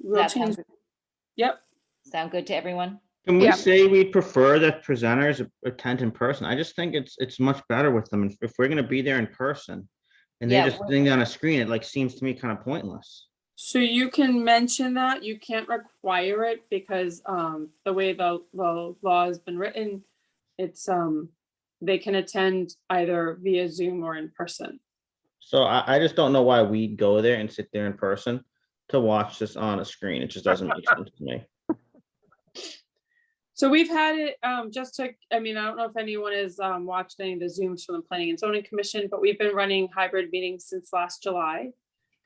We'll That sounds change, good. yep, Sound good to everyone? Can we Yeah. say we prefer that presenters attend in person? I just think it's, it's much better with them. If- If we're gonna be there in person and they Yeah, just we're- thing on a screen, it like seems to me kind of pointless. so you can mention that, you can't require it because, um, the way the, the law has been written, it's, um, they can attend either via Zoom or in person. So I, I just don't know why we go there and sit there in person to watch this on a screen. It just doesn't make sense to me. So we've had it, um, just to, I mean, I don't know if anyone has, um, watched any of the Zooms from the Planning and Zoning Commission, but we've been running hybrid meetings since last July.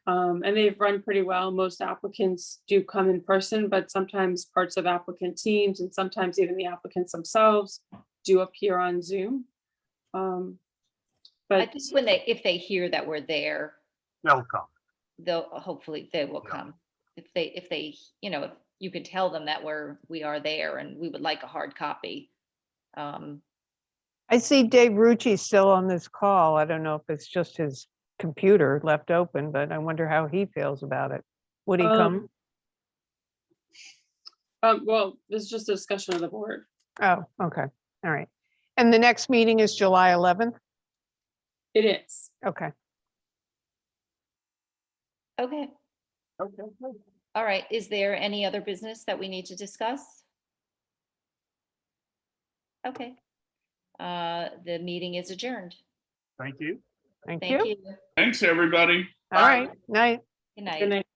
Um, and they've run pretty well. Most applicants do come in person, but sometimes parts of applicant teams and sometimes even the applicants themselves do appear on Zoom. Um, I but think when they, if they hear that we're there, They'll come. they'll, hopefully they will Yeah. come. If they, if they, you know, if you could tell them that we're, we are there and we would like a hard copy. Um, I see Dave Rucci's still on this call. I don't know if it's just his computer left open, but I wonder how he feels about it. Would he Um, come? Um, well, this is just a discussion of the board. Oh, okay, all right. And the next meeting is July 11th? It is. Okay, Okay, Okay. good. all right. Is there any other business that we need to discuss? Okay. Uh, the meeting is adjourned. Thank you. thank Thank you. you. Thanks, everybody. All right, night. Good Good night. night.